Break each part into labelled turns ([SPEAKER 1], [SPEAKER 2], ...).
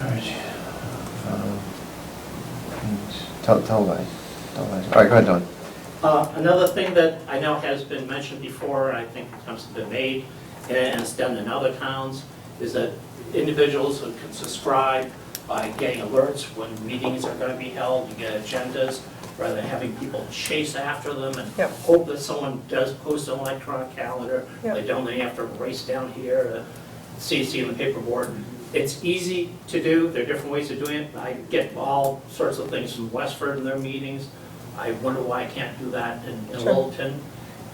[SPEAKER 1] All right.
[SPEAKER 2] Um, and Tell, tell Liz, tell Liz. All right, go ahead, Don.
[SPEAKER 1] Uh, Another thing that I know has been mentioned before, and I think attempts have been made, and it's done in other towns, is that individuals who can subscribe by getting alerts when meetings are going to be held, you get agendas, rather than having people chase after them and
[SPEAKER 3] Yep.
[SPEAKER 1] hope that someone does post an electronic calendar.
[SPEAKER 3] Yep.
[SPEAKER 1] They don't, they have to race down here uh, to CC and the paperboard. It's easy to do, there are different ways of doing it. I get all sorts of things from Westford in their meetings. I wonder why I can't do that in in
[SPEAKER 3] Sure.
[SPEAKER 1] Littleton.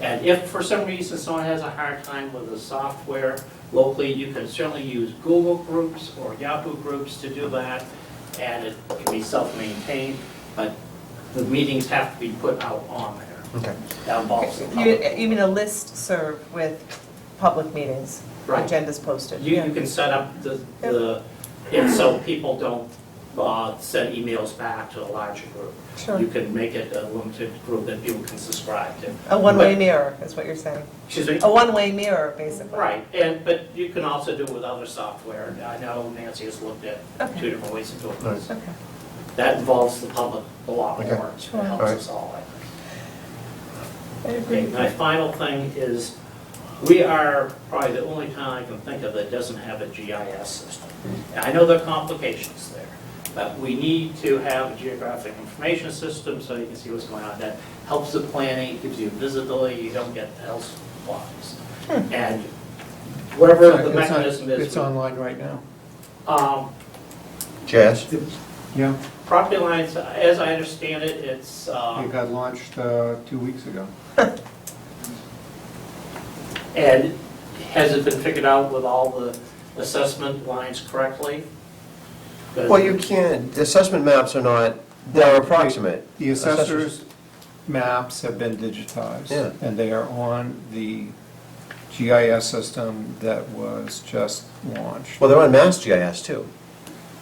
[SPEAKER 1] And if for some reason someone has a hard time with the software locally, you can certainly use Google Groups or Yahoo Groups to do that, and it can be self-maintained, but the meetings have to be put out on there.
[SPEAKER 2] Okay.
[SPEAKER 1] That involves the
[SPEAKER 3] You,
[SPEAKER 1] public.
[SPEAKER 3] you mean a list serve with public meetings?
[SPEAKER 1] Right.
[SPEAKER 3] Agendas posted?
[SPEAKER 1] You, you can set up the, the, and so people don't uh, send emails back to a larger group.
[SPEAKER 3] Sure.
[SPEAKER 1] You can make it a limited group that people can subscribe to.
[SPEAKER 3] A one-way mirror is what you're saying.
[SPEAKER 1] Excuse me?
[SPEAKER 3] A one-way mirror, basically.
[SPEAKER 1] Right, and, but you can also do it with other software. I know Nancy has looked at two
[SPEAKER 3] Okay.
[SPEAKER 1] different ways of doing this.
[SPEAKER 3] Okay.
[SPEAKER 1] That involves the public a lot
[SPEAKER 2] Okay.
[SPEAKER 1] more. It
[SPEAKER 3] Sure.
[SPEAKER 1] helps
[SPEAKER 2] Alright.
[SPEAKER 1] us all, I think.
[SPEAKER 3] I
[SPEAKER 1] Okay,
[SPEAKER 3] agree.
[SPEAKER 1] my final thing is, we are probably the only town I can think of that doesn't have a GIS system. And I know there are complications there, but we need to have a geographic information system so you can see what's going on. That helps the planning, gives you visibility, you don't get elsewise. And whatever the mechanism is.
[SPEAKER 4] Hmm. It's online right now.
[SPEAKER 1] Um,
[SPEAKER 2] Jazz?
[SPEAKER 4] Yeah,
[SPEAKER 1] Property lines, as I understand it, it's, uh,
[SPEAKER 4] it got launched uh, two weeks ago.
[SPEAKER 1] and has it been figured out with all the assessment lines correctly?
[SPEAKER 2] Well, you can't, the assessment maps are not, they're approximate.
[SPEAKER 4] The assessor's maps have been digitized.
[SPEAKER 2] Yeah.
[SPEAKER 4] And they are on the GIS system that was just launched.
[SPEAKER 2] Well, they're on Mass GIS too.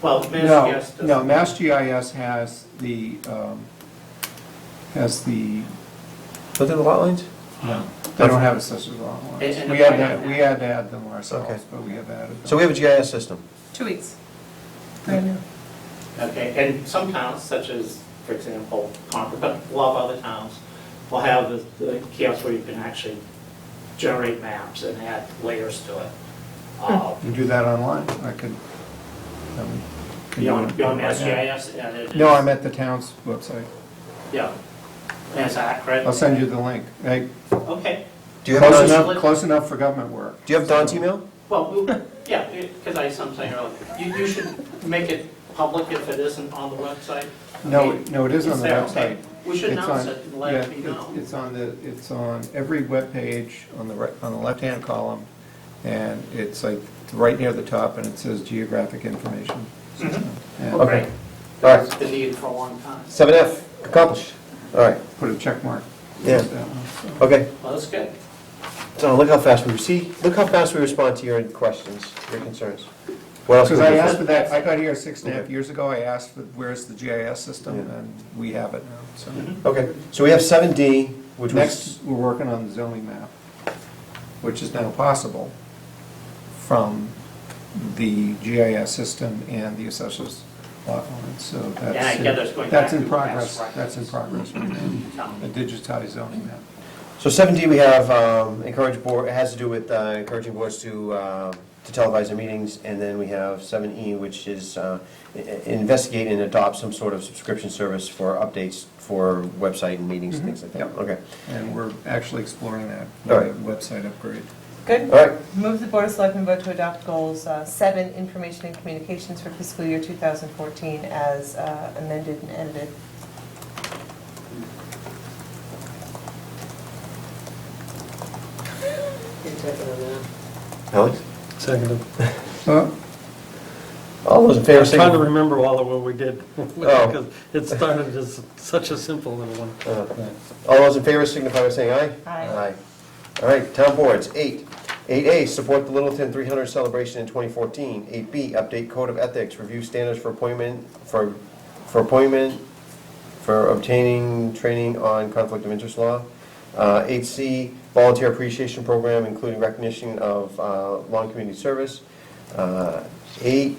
[SPEAKER 1] Well,
[SPEAKER 4] No,
[SPEAKER 1] Mass GIS
[SPEAKER 4] No,
[SPEAKER 1] doesn't.
[SPEAKER 4] Mass GIS has the, um, has the,
[SPEAKER 2] Look at the lot lines?
[SPEAKER 4] no, they don't have assessor's lot
[SPEAKER 1] And-
[SPEAKER 4] lines.
[SPEAKER 1] and
[SPEAKER 4] We
[SPEAKER 1] the
[SPEAKER 4] had,
[SPEAKER 1] point
[SPEAKER 4] that-
[SPEAKER 1] of
[SPEAKER 4] we
[SPEAKER 1] that-
[SPEAKER 4] had to add them ourselves, but we have added them.
[SPEAKER 2] So we have a GIS system.
[SPEAKER 3] Two weeks. Right now.
[SPEAKER 1] Okay, and some towns, such as, for example, Concord, but a lot of other towns, will have the- the kiosks where you can actually generate maps and add layers to it. Uh,
[SPEAKER 4] You do that online, I could. um, could do
[SPEAKER 1] Beyond,
[SPEAKER 4] it
[SPEAKER 1] beyond
[SPEAKER 4] right
[SPEAKER 1] Mass
[SPEAKER 4] now.
[SPEAKER 1] GIS, and it is.
[SPEAKER 4] No, I'm at the town's website.
[SPEAKER 1] Yeah, and it's accurate.
[SPEAKER 4] I'll send you the link. Hey,
[SPEAKER 1] Okay.
[SPEAKER 2] Do you have,
[SPEAKER 4] Close
[SPEAKER 2] Don's-
[SPEAKER 4] enough, close enough for government work.
[SPEAKER 2] do you have Don's email?
[SPEAKER 1] Well, we- yeah, because I, as I'm saying earlier, you, you should make it public if it isn't on the website.
[SPEAKER 4] No,
[SPEAKER 1] Okay.
[SPEAKER 4] no, it is on the
[SPEAKER 1] there,
[SPEAKER 4] website.
[SPEAKER 1] okay. We should
[SPEAKER 4] It's
[SPEAKER 1] announce
[SPEAKER 4] on-
[SPEAKER 1] it and let it be
[SPEAKER 4] yeah, it's-
[SPEAKER 1] known.
[SPEAKER 4] It's on the, it's on every webpage on the, right- on the left-hand column, and it's like right near the top, and it says geographic information. system.
[SPEAKER 1] Well,
[SPEAKER 2] All
[SPEAKER 1] great.
[SPEAKER 4] And
[SPEAKER 2] right.
[SPEAKER 1] That's been needed for a long time.
[SPEAKER 2] Seven F, accomplished. All right,
[SPEAKER 4] put a check mark.
[SPEAKER 2] Yeah. okay.
[SPEAKER 1] Well, that's good.
[SPEAKER 2] So look how fast we, see, look how fast we respond to your questions, your concerns. What else?
[SPEAKER 4] Because
[SPEAKER 2] can we
[SPEAKER 4] I
[SPEAKER 2] do?
[SPEAKER 4] asked for that, I got here six and a half
[SPEAKER 2] Okay.
[SPEAKER 4] years ago, I asked for, where's the GIS system,
[SPEAKER 2] Yeah.
[SPEAKER 4] and we have it now, so.
[SPEAKER 1] Mm-hmm.
[SPEAKER 2] Okay, so we have seven D, which was,
[SPEAKER 4] Next, we're working on the zoning map, which is now possible from the GIS system and the assessors lot lines, so that's.
[SPEAKER 1] Yeah, I get there's going
[SPEAKER 4] That's
[SPEAKER 1] back
[SPEAKER 4] in
[SPEAKER 1] to past
[SPEAKER 4] progress, that's in progress right now,
[SPEAKER 1] Tell
[SPEAKER 4] a
[SPEAKER 1] me.
[SPEAKER 4] digitized zoning map.
[SPEAKER 2] so seven D, we have um, encourage board, it has to do with uh, encouraging boards to, uh, to televise their meetings. And then we have seven E, which is uh, i- i- investigate and adopt some sort of subscription service for updates for website and meetings, and things like that.
[SPEAKER 4] Mhm.
[SPEAKER 2] Okay,
[SPEAKER 4] And we're actually exploring that,
[SPEAKER 2] All
[SPEAKER 4] with
[SPEAKER 2] right.
[SPEAKER 4] a website upgrade.
[SPEAKER 3] Good.
[SPEAKER 2] all right,
[SPEAKER 3] Move the Board of Selectmen vote to adopt goals uh, seven, information and communications for fiscal year 2014 as uh, amended and edited.
[SPEAKER 2] Alex?
[SPEAKER 5] Second.
[SPEAKER 4] So,
[SPEAKER 2] All those in favor,
[SPEAKER 5] I was trying to
[SPEAKER 2] signify.
[SPEAKER 5] remember all of what we did, because it started as such a simple little one.
[SPEAKER 2] uh, All those in favor signify by saying aye.
[SPEAKER 3] Aye.
[SPEAKER 2] All right, town boards, eight. Eight A, support the Littleton three hundred celebration in twenty fourteen. Eight B, update code of ethics, review standards for appointment, for, for appointment, for obtaining training on conflict of interest law. Uh, Eight C, volunteer appreciation program, including recognition of uh, long community service. Uh, Eight